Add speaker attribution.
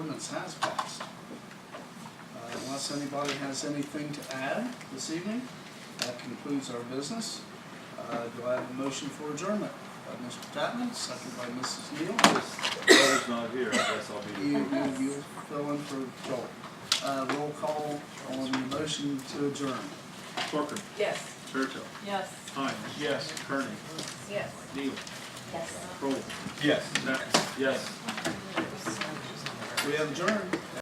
Speaker 1: ordinance has passed. Uh, Unless anybody has anything to add this evening, that concludes our business. Uh, Do I have a motion for adjournment? By Mr. Tatman, second by Mrs. Neal.
Speaker 2: Brother's not here, I guess I'll be.
Speaker 1: You, you, you fill in for Joel. Uh, Roll call on the motion to adjourn.
Speaker 2: Corcoran,
Speaker 3: Yes.
Speaker 2: Churchill,
Speaker 3: Yes.
Speaker 2: Hines. Yes. Kearney,
Speaker 3: Yes.
Speaker 2: Neal,
Speaker 3: Yes.
Speaker 2: Crowell. Yes. Yes.
Speaker 1: We have adjourned.